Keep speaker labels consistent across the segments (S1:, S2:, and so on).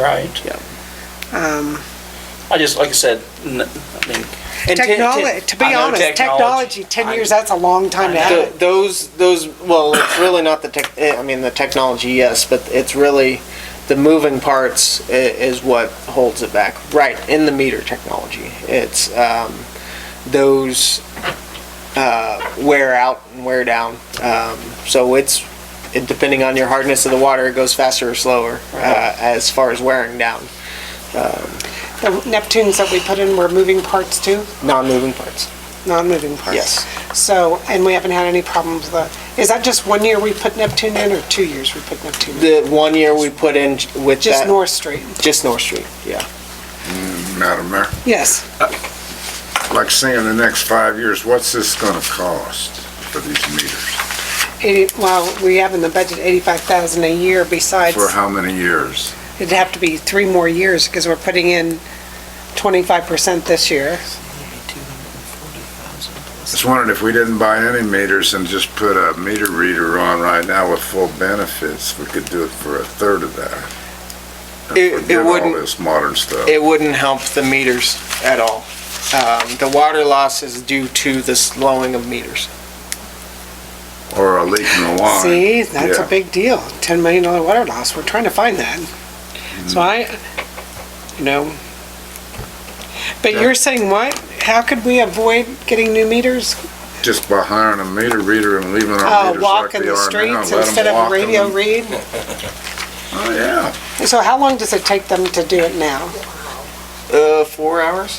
S1: Right.
S2: Yeah.
S1: Um,
S2: I just, like I said, n- I mean. and ten-
S1: Technology,
S2: ten-
S1: to be
S2: I know
S1: honest, technology, 10 years, that's a long time to
S2: I
S1: have
S3: Th
S1: it.
S3: those, those, well, it's really not the tech, eh, I mean, the technology, yes, but it's really the moving parts i- is what holds it back. Right, in the meter technology. It's, um, those, uh, wear out and wear down. Um, so it's, it- depending on your hardness of the water, it goes faster or slower, uh, as far as wearing down,
S1: The Neptunes that we put in were moving parts too,
S3: non-moving parts.
S1: non-moving parts.
S3: Yes.
S1: So, and we haven't had any problems with that. Is that just one year we put Neptune in or two years we put Neptune in?
S3: The one year we put in j- with
S1: Just
S3: that-
S1: North Street?
S3: Just North Street, yeah.
S4: Madam Mayor,
S1: Yes.
S4: like say in the next five years, what's this gonna cost for these meters?
S1: Eighty- Well, we have in the budget 85,000 a year besides,
S4: For how many years?
S1: it'd have to be three more years because we're putting in 25% this year.
S4: Just wondered if we didn't buy any meters and just put a meter reader on right now with full benefits, we could do it for a third of that. And
S3: It- it
S4: forget
S3: wouldn't-
S4: All this modern stuff.
S3: it wouldn't help the meters at all. Um, The water loss is due to the slowing of meters.
S4: Or a leak in the line.
S1: See, that's a
S4: Yeah.
S1: big deal. $10 million water loss. We're trying to find that. So
S4: Mm-hmm.
S1: I, you know, but
S4: Yeah.
S1: you're saying what? How could we avoid getting new meters?
S4: Just by hiring a meter reader and leaving our
S1: Uh,
S4: meters like
S1: walk
S4: they
S1: in the
S4: are now, let
S1: streets
S4: 'em
S1: instead of
S4: walk
S1: a radio
S4: 'em.
S1: read?
S4: Oh, yeah.
S1: So how long does it take them to do it now?
S3: Uh, Four hours?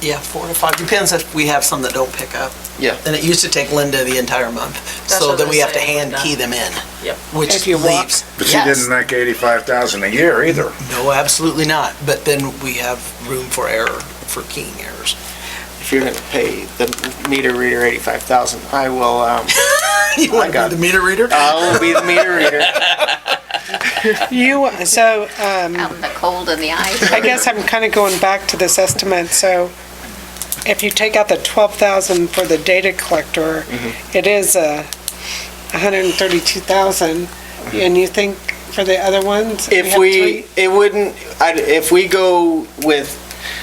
S5: Yeah, four to five, depends if we have some that don't pick up.
S3: Yeah.
S5: And it used to take Linda the entire month,
S6: That's
S5: so
S6: what
S5: then
S6: I
S5: we have to
S6: say,
S5: hand
S6: Linda.
S5: key them in.
S6: Yep.
S5: Which
S1: If you walk.
S5: leaves.
S4: But she
S5: Yes.
S4: didn't make eighty-five thousand a year either.
S5: No, absolutely not, but then we have room for error, for keying errors.
S3: If you're gonna pay the meter reader 85,000, I will, um,
S5: You want to
S3: got
S5: be the meter reader?
S3: I will be the meter reader.
S1: You, so um,
S6: out in the cold and the ice.
S1: I guess I'm kind of going back to this estimate, so if you take out the 12,000 for the data collector,
S3: Mm-hmm.
S1: it is uh, 132,000, and you think for the other ones?
S3: Mm-hmm. If
S1: have
S3: we,
S1: three-
S3: it wouldn't, I'd- if we go with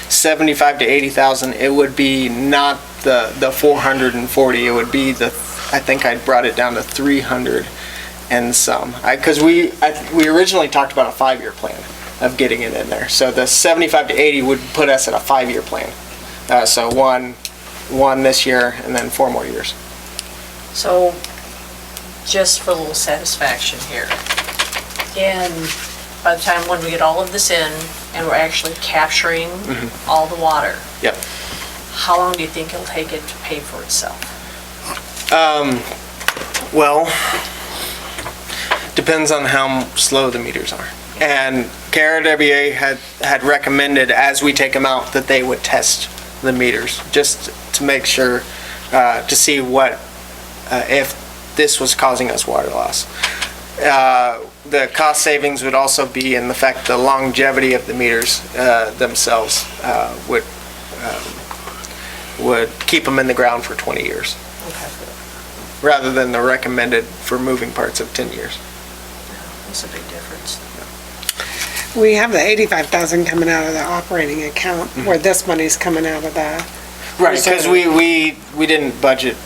S3: 75 to 80,000, it would be not the, the 440, it would be the, I think I brought it down to 300 and some. I, because we, I, we originally talked about a five-year plan of getting it in there. So the 75 to 80 would put us at a five-year plan. Uh, so one, one this year and then four more years.
S7: So, just for a little satisfaction here, and by the time when we get all of this in, and we're actually capturing all the water.
S3: Yep.
S7: How long do you think it'll take it to pay for itself?
S3: Um, well, depends on how slow the meters are. And KRWA had, had recommended, as we take them out, that they would test the meters, just to make sure, uh, to see what, uh, if this was causing us water loss. Uh, the cost savings would also be in the fact the longevity of the meters, uh, themselves, uh, would, um, would keep them in the ground for 20 years
S7: Okay,
S3: rather than the recommended for moving parts of 10 years.
S7: That's a big difference.
S1: We have the 85,000 coming out of the operating account,
S3: Mm-hmm.
S1: where this money's coming out of the,
S3: Right, because we, we, we didn't budget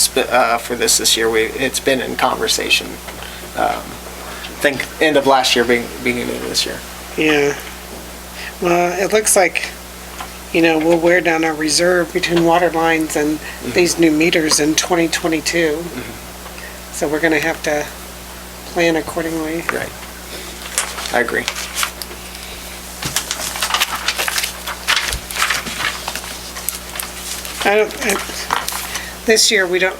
S3: sp- uh, for this this year, we, it's been in conversation. um, Think, end of last year, being- beginning of this year.
S1: yeah. Well, it looks like, you know, we'll wear down our reserve between water lines and
S3: Mm-hmm.
S1: these new meters in 2022.
S3: Mm-hmm.
S1: So we're going to have to plan accordingly.
S3: I agree.
S1: I don't, I- this year, we don't,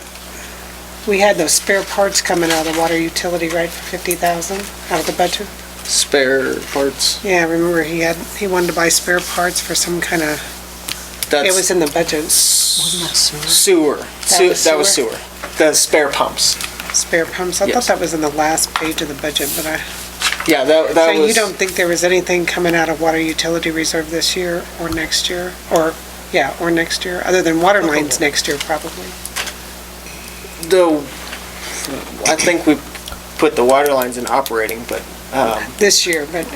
S1: we had those spare parts coming out of the water utility, right, for 50,000 out of the budget?
S3: Spare parts,
S1: Yeah, I remember he had, he wanted to buy spare parts for some kind of, it was
S3: that's
S1: in the budget,
S5: Wasn't that sewer?
S3: sewer. Su-
S1: was
S3: That was
S1: sewer?
S3: sewer. The spare pumps.
S1: spare pumps. I thought
S3: Yes.
S1: that was in the last page of the budget, but I,
S3: Yeah, that,
S1: so
S3: that was.
S1: you don't think there was anything coming out of water utility reserve this year or next year? Or, yeah, or next year, other than water lines next year probably?
S3: The, I think we put the water lines in operating, but, um,
S1: This year, but